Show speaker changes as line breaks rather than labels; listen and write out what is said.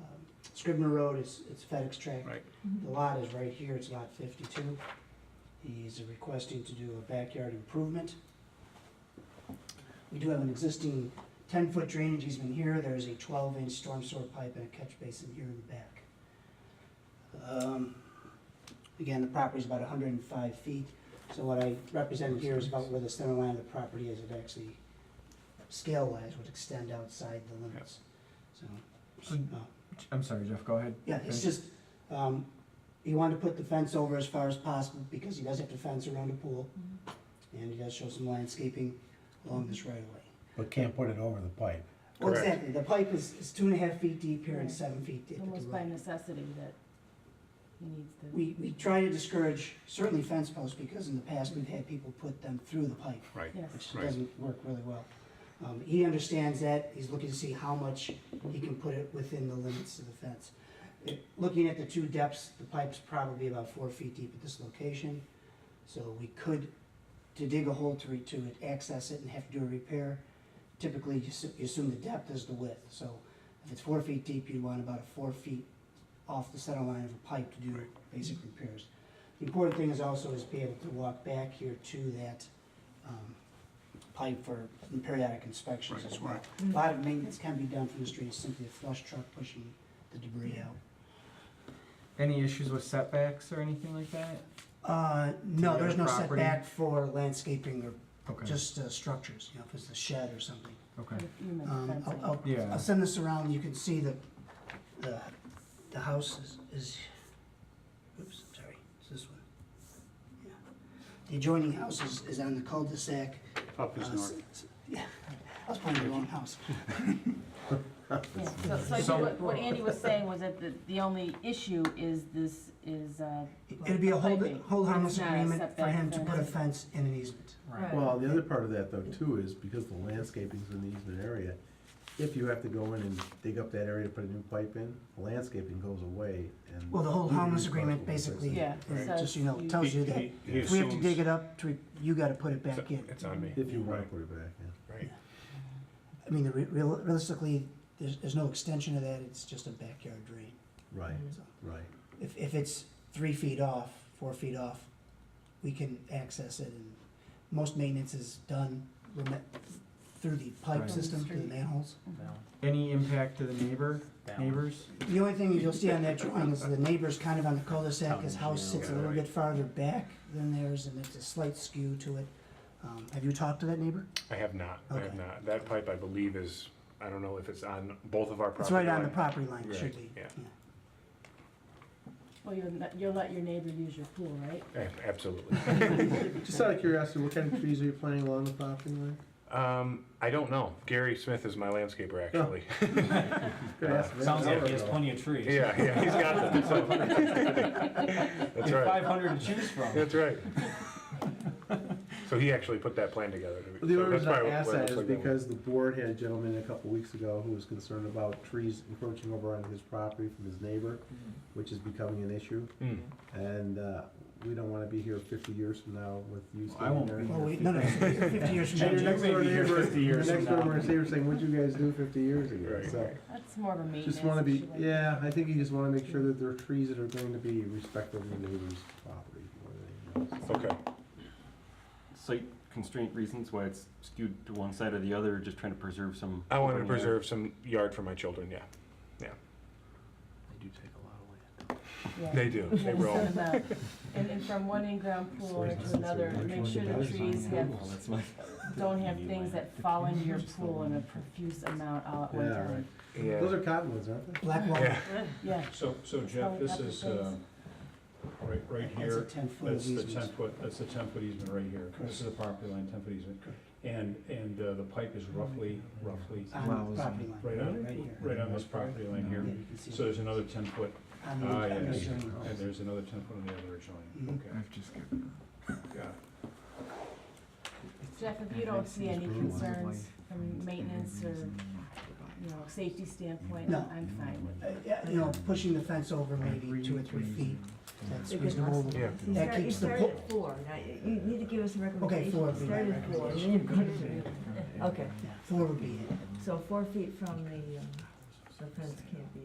Um, Scribner Road is, it's FedEx track.
Right.
The lot is right here, it's lot fifty-two. He's requesting to do a backyard improvement. We do have an existing ten-foot drainage easement here, there's a twelve-inch storm sewer pipe and a catch basin here in the back. Um, Again, the property's about hundred and five feet, so what I represent here is about where the center line of the property is, it actually, scale-wise, would extend outside the limits, so.
So-
uh,
I'm sorry, Jeff, go ahead.
yeah, it's just, um, he wanted to put the fence over as far as possible because he does have to fence around the pool.
Mm-hmm.
And he does show some landscaping along this right of way.
But can't put it over the pipe.
Well,
Correct.
exactly, the pipe is, is two and a half feet deep here and
Right.
seven feet deep at the
Almost by
road.
necessity that he needs to.
We, we try to discourage certainly fence posts because in the past we've had people put them through the pipe,
Right.
Yes,
which doesn't work really well. Um, he understands that, he's looking to see how much he can put it within the limits of the fence. It- Looking at the two depths, the pipe's probably about four feet deep at this location, so we could, to dig a hole to, re- to access it and have to do a repair, typically you assu- you assume the depth is the width, so if it's four feet deep, you'd want about a four feet off the center line of a pipe to do basic repairs. The important thing is also is be able to walk back here to that, um, pipe for periodic inspections
Right,
as well.
right.
A lot of maintenance can be done from the street, It's simply a flush truck pushing the debris out.
Any issues with setbacks or anything like that?
Uh, no,
The
there's no
other property?
setback for landscaping or
Okay.
just uh, structures, you know, if it's a shed or something.
Okay.
you meant
Um, I'll,
fencing.
I'll-
Yeah.
I'll send this around, you can see the, the, the house is, is, oops, I'm sorry, it's this one. Yeah. The adjoining house is, is on the cul-de-sac.
Up is
uh,
north.
s- s- Yeah, I was pointing at the wrong house.
Yeah, so- So I
So-
think what, what Andy was saying was that the, the only issue is this, is, uh.
It'd be a hold,
piping.
hold harmless
It's not a
agreement for
setback
him to put a
fence.
fence in an easement.
Right.
Well, the other part of that though too is because the landscaping's in the easement area, if you have to go in and dig up that area to put a new pipe in, the landscaping goes away and.
Well, the whole
You're
harmless
responsible
agreement
for fixing
basically,
it.
Yeah,
uh,
so
just, you know,
you-
tells
He-
you that
he- he
if we have to
assumes-
dig it up, to- you gotta put it back in.
It's on me.
If you wanna put it back, yeah.
Right.
I mean, re- real- realistically, there's, there's no extension of that, it's just a backyard drain.
Right,
So
right.
If, if it's three feet off, four feet off, we can access it and most maintenance is done reme- through the pipe
Right.
system, through the manholes.
Any impact to the neighbor, neighbors?
The only thing you'll see on that drawing is the neighbor's kind of on the cul-de-sac, his house sits a little bit farther back than theirs and there's a slight skew to it. Um, have you talked to that neighbor?
I have not, I have
Okay.
not. That pipe, I believe, is, I don't know if it's on both of our property.
It's right on the
line.
property line, it
Right,
should be.
yeah.
Well, you'll, let- you'll let your neighbor use your pool, right?
Ab- Eh, Absolutely.
Just out of curiosity, what kind of trees are you planting along the property line?
Um, I don't know. Gary Smith is my landscaper, actually.
Could ask him an
Sounds like
hour
he has
ago.
plenty of trees.
Yeah, yeah, he's got them. so- That's right,
Five hundred to choose from.
that's right. So he actually put that plan together.
Well, The
So
only
that's
reason I
probably
ask
why it
that
looks
is
like that one.
because the board had a gentleman a couple weeks ago who was concerned about trees encroaching over onto his property from his neighbor, which is becoming an issue,
Mm.
and, uh, we don't wanna be here fifty years from now with you
I
standing
won't
there.
be
Well, we, no, no, fifty years from now.
And your
You
next
may
door
be here
neighbor,
50
your
years
next
from
door
now.
neighbor is saying, what'd you guys do fifty years ago?
Right,
So,
right.
That's more of a maintenance.
just wanna be,
issue, I
yeah, I think you just wanna make sure that there are trees that are going to be respectful of your neighbor's property. more than anything else.
Okay,
site constraint reasons why it's skewed to one side or the other, just trying to preserve some.
I wanted to
open air.
preserve some yard for my children, yeah.
They do take a lot of land.
yeah.
They do, they
And so
roll.
the- And, and from one in-ground pool to another, make sure the trees have,
Well, that's my.
don't have things that fall into your pool in a profuse amount all at one
Yeah,
time.
Yeah.
Those are cottonwoods, aren't they?
Black wall,
Yeah.
Yeah.
So, so
Oh,
Jeff, this is, uh, right, right
that's a
here,
ten foot
that's the
easement.
ten foot, that's the ten foot easement right here. This is the property line, ten foot easement. And, and uh, the pipe is roughly, roughly
On the property line.
right on,
here.
right on this property line
Yeah,
here.
you can see
So
it.
there's another ten foot,
On the-
ah,
on the
yes.
journey.
and there's another ten foot on the other adjoining.
Mhm.
Okay,
I've just given.
got it.
Jeff, if you don't see any concerns from maintenance or, you know, safety standpoint,
No.
I'm fine with it.
Uh, yeah, You know, pushing the fence over maybe two or three feet, that's reasonable.
Yeah.
That
Start- you
keeps the
start
pool.
at four, now, you- you need to give us a
Okay,
recommendation.
four would be my
Start at four, and then
recommendation.
you go to three. Okay,
Yeah, Four would be it.
so four feet from uh, the, um, the fence can't be